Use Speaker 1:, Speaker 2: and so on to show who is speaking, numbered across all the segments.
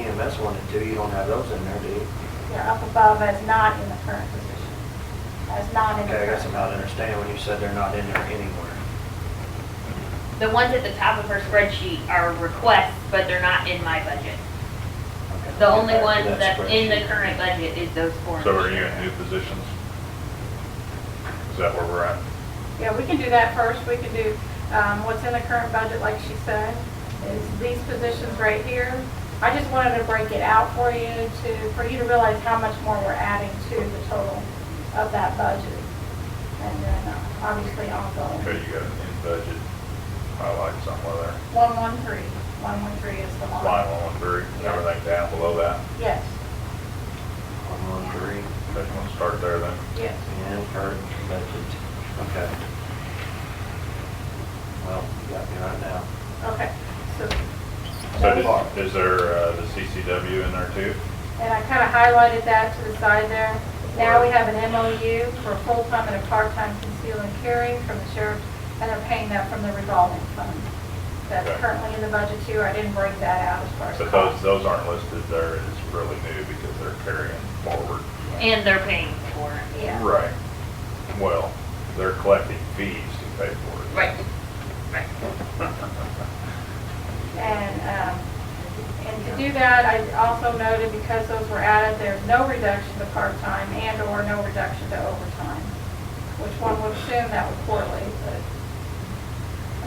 Speaker 1: EMS one and two, you don't have those in there, do you?
Speaker 2: They're up above as not in the current position, as not in the
Speaker 1: Okay, I guess I'm
Speaker 2: current.
Speaker 1: not understanding when you said they're not in there anywhere.
Speaker 3: The ones at the top of her spreadsheet are requests, but they're not in my budget.
Speaker 1: Okay,
Speaker 3: The
Speaker 1: I'll get back
Speaker 3: only
Speaker 1: to
Speaker 3: ones
Speaker 1: that
Speaker 3: that's in the
Speaker 1: spreadsheet.
Speaker 3: current budget is those four.
Speaker 4: So are you in new positions? Is that where we're at?
Speaker 2: Yeah, we can do that first, we can do, um, what's in the current budget, like she said, is these positions right here. I just wanted to break it out for you to, for you to realize how much more we're adding to the total of that budget. And then uh, obviously
Speaker 4: Okay,
Speaker 2: ongoing.
Speaker 4: you got an in-budget highlight somewhere there.
Speaker 2: One one three. One one three is the
Speaker 4: Line
Speaker 2: line.
Speaker 4: one one three, and everything down below that.
Speaker 2: Yes,
Speaker 1: One, one, three,
Speaker 4: Okay, you wanna start there then?
Speaker 2: yes.
Speaker 1: and current budget, okay. Well, you got me right now.
Speaker 2: Okay, so,
Speaker 4: So did- is there, uh, the CCW in there too?
Speaker 2: and I kind of highlighted that to the side there. Now we have an MOU for full-time and a part-time conceal and carry from the sheriff, and they're paying that from the revolving fund. That's
Speaker 4: Okay.
Speaker 2: currently in the budget too, I didn't break that out as far as
Speaker 4: But
Speaker 2: cost.
Speaker 4: those, those aren't listed there as really new because they're carrying forward.
Speaker 3: And they're paying for it.
Speaker 2: Yeah,
Speaker 4: Right. Well, they're collecting fees to pay for it.
Speaker 3: Right, right.
Speaker 2: and, um, and to do that, I also noted because those were added, there's no reduction to part-time and/or no reduction to overtime, which one would assume that would correlate, but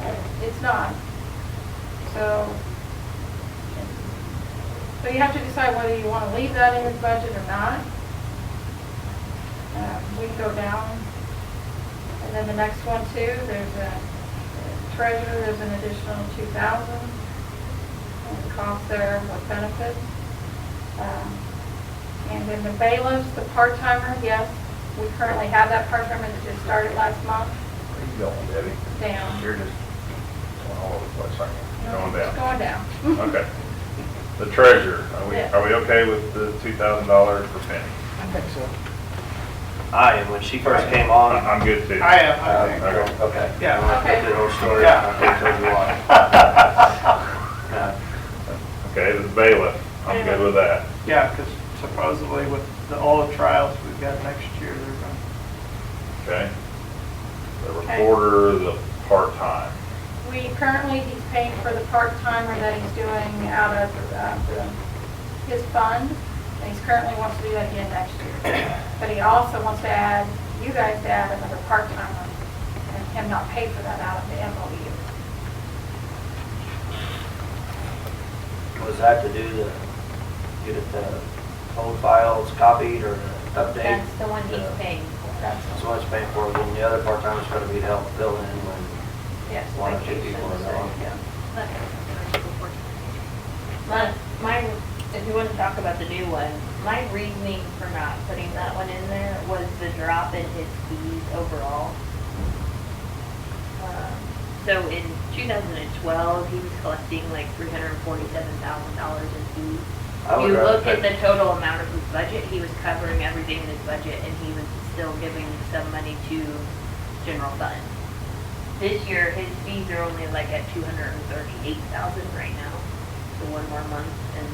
Speaker 2: uh, it's not. So, so you have to decide whether you want to leave that in your budget or not. Uh, We can go down. And then the next one too, there's a uh, treasurer, there's an additional two thousand. And the cost there with benefits. Um, And then the bailiffs, the part-timer, yes, we currently have that part-timer that just started last month
Speaker 4: Where you going, Debbie?
Speaker 2: down.
Speaker 4: You're just going all over the place, aren't you?
Speaker 2: No,
Speaker 4: Going
Speaker 2: it's
Speaker 4: down.
Speaker 2: Going down.
Speaker 4: Okay. The treasurer, are we,
Speaker 2: Yeah.
Speaker 4: are we okay with the two thousand dollar per penny?
Speaker 5: I think so.
Speaker 1: I am, Ah, when she first came on. uh,
Speaker 4: I'm I'm good too.
Speaker 5: I am,
Speaker 1: Um,
Speaker 5: I think.
Speaker 4: Okay.
Speaker 1: Okay.
Speaker 5: Yeah.
Speaker 1: You want to put the whole story,
Speaker 5: Yeah.
Speaker 1: I can tell you Uh, why. Yeah.
Speaker 4: Okay, the bailiff, I'm good with that.
Speaker 5: Yeah, because supposedly with the, all the trials we've got next year, they're going,
Speaker 4: Okay. The
Speaker 2: Okay.
Speaker 4: recorder, the part-time.
Speaker 2: We currently, he's paying for the part-timer that he's doing out of uh, the- his fund, and he's currently wants to do that again next year. But he also wants to add, you guys to add another part-timer, and him not pay for that out of the MOU.
Speaker 1: Was that to do the, get it the old files copied or update?
Speaker 3: That's the one he's
Speaker 1: Yeah.
Speaker 3: paying for.
Speaker 2: That's,
Speaker 1: So much paying for it, and the other part-time is gonna be to help fill in when,
Speaker 2: yes,
Speaker 1: One or two
Speaker 2: vacations,
Speaker 1: people are
Speaker 2: so,
Speaker 1: gone.
Speaker 2: yeah.
Speaker 3: My, my, if you want to talk about the new one, my reasoning for not putting that one in there was the drop in his fees overall. Um, So in 2012, he was collecting like $347,000 in fees.
Speaker 1: I
Speaker 4: Oh,
Speaker 1: would
Speaker 3: You
Speaker 1: rather
Speaker 3: look at
Speaker 1: pay-
Speaker 3: the total amount of his budget, he was covering everything in his budget and he was still giving some money to general fund. This year, his fees are only like at two hundred and thirty-eight thousand right now, so one more month and,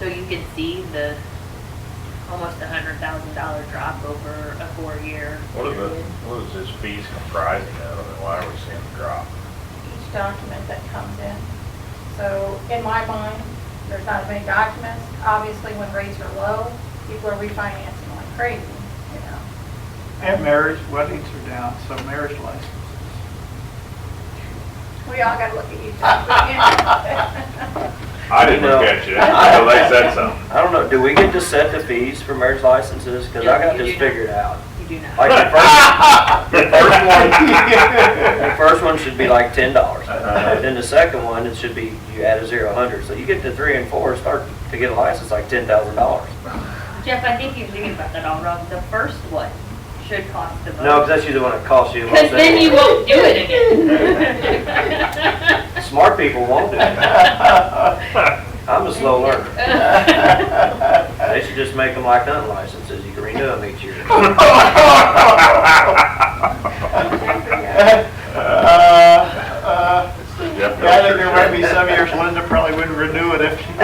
Speaker 3: so you can see the almost a hundred thousand dollar drop over a four-year
Speaker 4: What are the,
Speaker 3: period.
Speaker 4: what is his fees comprising of, and why are we seeing the drop?
Speaker 2: each document that comes in. So in my mind, there's not as many documents. Obviously, when rates are low, people are refinancing like crazy, you know.
Speaker 5: and marriage, weddings are down, so marriage licenses.
Speaker 2: We all gotta look at you. Jeff.
Speaker 4: I didn't
Speaker 1: You know-
Speaker 4: look at you, so they said something.
Speaker 1: I don't know, do we get to set the fees for marriage licenses? Cause I got
Speaker 3: No, you
Speaker 1: this
Speaker 3: do not.
Speaker 1: figured out.
Speaker 3: You do not.
Speaker 1: Like the first, the first one, the first one should be like ten dollars.
Speaker 4: Uh-huh.
Speaker 1: Then the second one, it should be, you add a zero, a hundred. So you get to three and four, start to get a license like ten thousand dollars.
Speaker 3: Jeff, I think you're thinking about that all wrong. The first one should cost the most.
Speaker 1: No, cause that's usually when it costs you.
Speaker 3: Because then you won't do it again.
Speaker 1: Smart people won't do it.
Speaker 5: Uh,
Speaker 1: I'm a slow learner. They should just make them like hunting licenses, you can renew them each year.
Speaker 5: Uh, uh,
Speaker 4: Yep,
Speaker 5: Yeah, I think
Speaker 4: that's
Speaker 5: there
Speaker 4: your
Speaker 5: might be
Speaker 4: check.
Speaker 5: some years Linda probably wouldn't renew it if